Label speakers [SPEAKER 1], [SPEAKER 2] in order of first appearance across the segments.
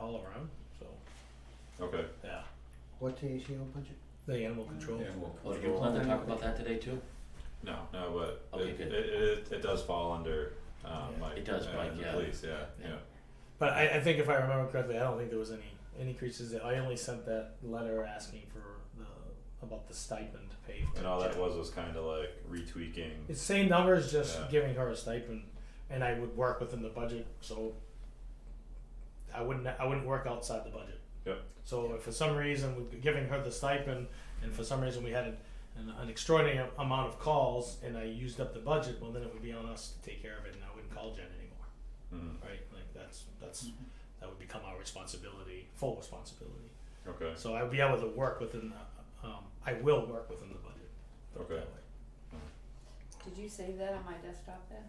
[SPEAKER 1] all around, so,
[SPEAKER 2] Okay,
[SPEAKER 1] yeah,
[SPEAKER 3] What's the ACO budget?
[SPEAKER 1] the animal control.
[SPEAKER 2] and we'll
[SPEAKER 4] Oh, did you plan to talk about that today too?
[SPEAKER 2] No, no, but
[SPEAKER 4] Okay,
[SPEAKER 2] it, it,
[SPEAKER 4] good.
[SPEAKER 2] it, it does fall under, um,
[SPEAKER 1] Yeah.
[SPEAKER 2] Mike.
[SPEAKER 4] It does,
[SPEAKER 2] uh,
[SPEAKER 4] Mike,
[SPEAKER 2] the
[SPEAKER 4] yeah.
[SPEAKER 2] Police, yeah,
[SPEAKER 4] Yeah.
[SPEAKER 2] yeah,
[SPEAKER 1] But I, I think if I remember correctly, I don't think there was any increases. I only sent that letter asking for the, about the stipend paid. to
[SPEAKER 2] and all that
[SPEAKER 1] Jen.
[SPEAKER 2] was was kinda like retweaking,
[SPEAKER 1] It's same numbers, just
[SPEAKER 2] Yeah.
[SPEAKER 1] giving her a stipend, and I would work within the budget, so I wouldn't, I wouldn't work outside the budget.
[SPEAKER 2] Yep.
[SPEAKER 1] So if for some reason we're giving her the stipend, and for some reason we had an, an- an extraordinary amount of calls, and I used up the budget, well, then it would be on us to take care of it, and I wouldn't call Jen anymore,
[SPEAKER 2] mm,
[SPEAKER 1] right? Like, that's, that's, that would become our responsibility, full responsibility.
[SPEAKER 2] okay,
[SPEAKER 1] So I'd be able to work within the, um, I will work within the budget. put it that
[SPEAKER 2] Okay.
[SPEAKER 1] way.
[SPEAKER 5] Did you save that on my desktop then?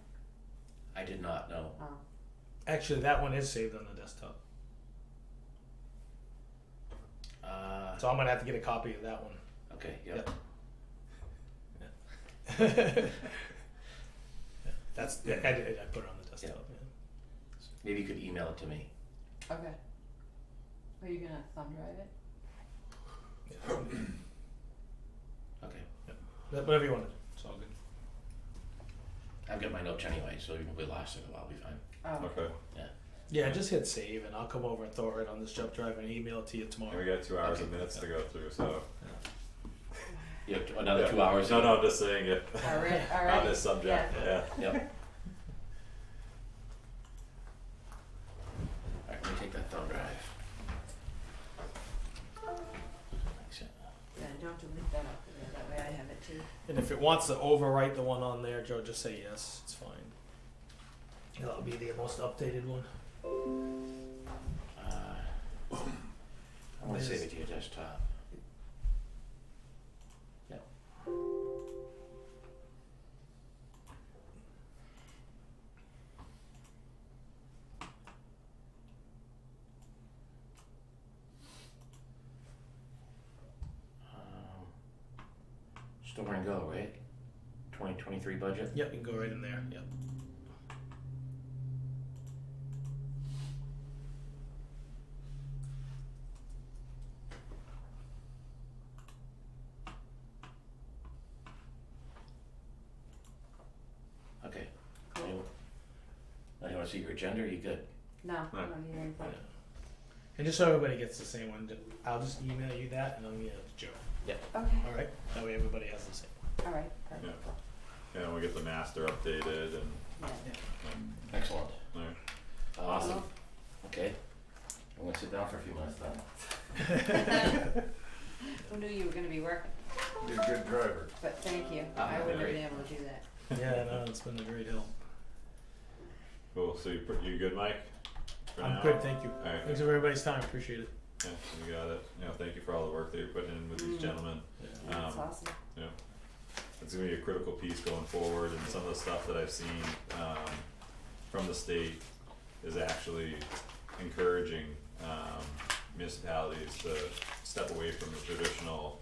[SPEAKER 4] I did not know.
[SPEAKER 5] Oh.
[SPEAKER 1] Actually, that one is saved on the desktop.
[SPEAKER 4] Uh,
[SPEAKER 1] So I'm gonna have to get a copy of that one.
[SPEAKER 4] okay, yep.
[SPEAKER 1] That's I, I, did- I put it on the desktop. Yeah.
[SPEAKER 4] Maybe you could email it to me.
[SPEAKER 5] Okay. Are you gonna thumb drive it?
[SPEAKER 4] Okay.
[SPEAKER 1] But Whatever you want to do, it's all good.
[SPEAKER 4] I've got my notes anyway, so even if we lost it, I'll be fine.
[SPEAKER 5] Oh,
[SPEAKER 2] okay,
[SPEAKER 1] Yeah, just hit save, and I'll come over and throw it on this jump drive and email it to you tomorrow.
[SPEAKER 2] and we got two hours and
[SPEAKER 4] Okay.
[SPEAKER 2] minutes to go through, so.
[SPEAKER 4] You have t- another
[SPEAKER 2] Yeah.
[SPEAKER 4] two hours.
[SPEAKER 2] No, no, I'm just saying it,
[SPEAKER 5] alright,
[SPEAKER 2] on
[SPEAKER 5] alright,
[SPEAKER 2] this subject,
[SPEAKER 5] yeah.
[SPEAKER 2] yeah,
[SPEAKER 4] Yep. Alright, let me take that thumb drive. Thanks, yeah.
[SPEAKER 5] yeah, don't delete that off of there, that way I have it too.
[SPEAKER 1] And if it wants to overwrite the one on there, Joe, just say yes. It's fine. That'll be the most updated one.
[SPEAKER 4] Uh, I'm gonna save
[SPEAKER 1] There's-
[SPEAKER 4] it to your desktop. Yep. Um, Um, Store and go, right? Twenty twenty-three budget?
[SPEAKER 1] Yep, you can go right in there. Yep.
[SPEAKER 4] Okay.
[SPEAKER 5] Cool.
[SPEAKER 4] You- Now you wanna see your agenda, or you good?
[SPEAKER 5] No, I
[SPEAKER 2] No.
[SPEAKER 5] don't need anything.
[SPEAKER 1] And just so everybody gets the same one, ju- I'll just email you that, and I'll email it to Joe.
[SPEAKER 5] Okay,
[SPEAKER 1] All right. That way everybody has the same.
[SPEAKER 5] alright, perfect,
[SPEAKER 2] and we'll get the master updated and,
[SPEAKER 5] yeah.
[SPEAKER 2] and,
[SPEAKER 4] Excellent.
[SPEAKER 2] alright.
[SPEAKER 4] Awesome. Okay. I'm gonna sit down for a few minutes then.
[SPEAKER 5] Who knew you were gonna be working,
[SPEAKER 6] You're a good driver.
[SPEAKER 5] but thank you,
[SPEAKER 4] Ah,
[SPEAKER 5] I wouldn't have
[SPEAKER 4] great.
[SPEAKER 5] been able to do that.
[SPEAKER 1] Yeah, no, it's been a great help.
[SPEAKER 2] Cool, so you, pr- you good, Mike? For
[SPEAKER 1] I'm
[SPEAKER 2] now?
[SPEAKER 1] good, thank you.
[SPEAKER 2] Alright.
[SPEAKER 1] Thanks for everybody's time, appreciate it.
[SPEAKER 2] Yeah, you got it, you know, thank you for all the work that you're putting in with these
[SPEAKER 5] Mm.
[SPEAKER 2] gentlemen,
[SPEAKER 5] That's
[SPEAKER 2] um,
[SPEAKER 5] awesome,
[SPEAKER 2] it's gonna be a critical piece going forward and some of the stuff that I've seen um from the state is actually encouraging um municipalities to step away from the traditional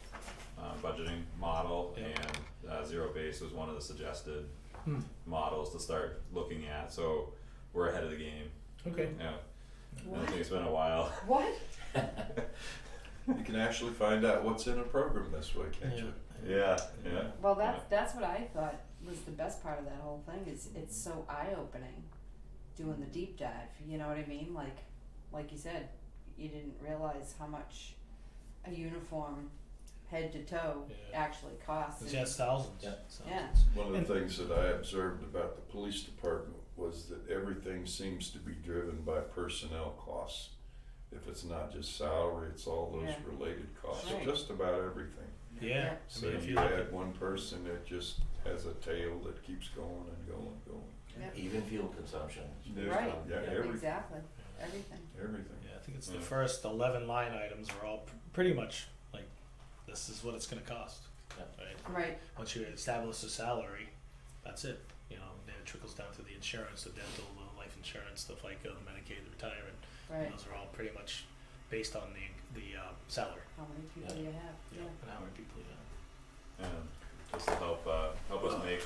[SPEAKER 2] um budgeting model
[SPEAKER 1] Yeah.
[SPEAKER 2] and uh zero base was one of the suggested
[SPEAKER 1] Hmm.
[SPEAKER 2] models to start looking at, so we're ahead of the game,
[SPEAKER 1] Okay.
[SPEAKER 2] yeah. I
[SPEAKER 5] what,
[SPEAKER 2] think it's been a while,
[SPEAKER 5] what?
[SPEAKER 6] You can actually find out what's in a program this way, can't you?
[SPEAKER 2] yeah, yeah,
[SPEAKER 5] Well, that's, that's what I thought was the best part of that whole thing, is it's so eye-opening, doing the deep dive, you know what I mean, like, like you said, you didn't realize how much a uniform, head to toe,
[SPEAKER 1] Yeah.
[SPEAKER 5] actually costs.
[SPEAKER 1] It's
[SPEAKER 5] and-
[SPEAKER 1] just thousands.
[SPEAKER 4] Yeah.
[SPEAKER 1] thousands.
[SPEAKER 5] Yeah.
[SPEAKER 6] One
[SPEAKER 1] And-
[SPEAKER 6] of the things that I observed about the police department was that everything seems to be driven by personnel costs. If it's not just salary, it's all those
[SPEAKER 5] Yeah.
[SPEAKER 6] related costs,
[SPEAKER 5] Right.
[SPEAKER 6] just about everything.
[SPEAKER 1] Yeah. I
[SPEAKER 6] So
[SPEAKER 1] mean, if you
[SPEAKER 6] you
[SPEAKER 1] look at,
[SPEAKER 6] add one person that just has a tail that keeps going and going and going.
[SPEAKER 4] Even fuel consumption.
[SPEAKER 5] Yeah. Right.
[SPEAKER 6] Yeah, every,
[SPEAKER 5] Exactly, everything.
[SPEAKER 6] everything.
[SPEAKER 1] yeah, I think it's the
[SPEAKER 2] Yeah.
[SPEAKER 1] first 11 line items are all pr- pretty much like this is what it's going to cost.
[SPEAKER 4] Yeah.
[SPEAKER 1] Right?
[SPEAKER 5] Right,
[SPEAKER 1] Once you establish the salary, that's it. You know, then it trickles down to the insurance, the dental, the life insurance, the FICA, the Medicaid, the retirement.
[SPEAKER 5] right,
[SPEAKER 1] Those are all pretty much based on the the uh, salary
[SPEAKER 5] how many people do you have, yeah,
[SPEAKER 1] and how many people you have.
[SPEAKER 2] and just to help uh help us make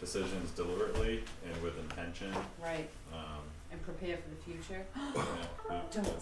[SPEAKER 2] decisions deliberately and with intention,
[SPEAKER 5] right,
[SPEAKER 2] um,
[SPEAKER 5] and prepare for the future,
[SPEAKER 2] yeah, yeah.
[SPEAKER 5] don't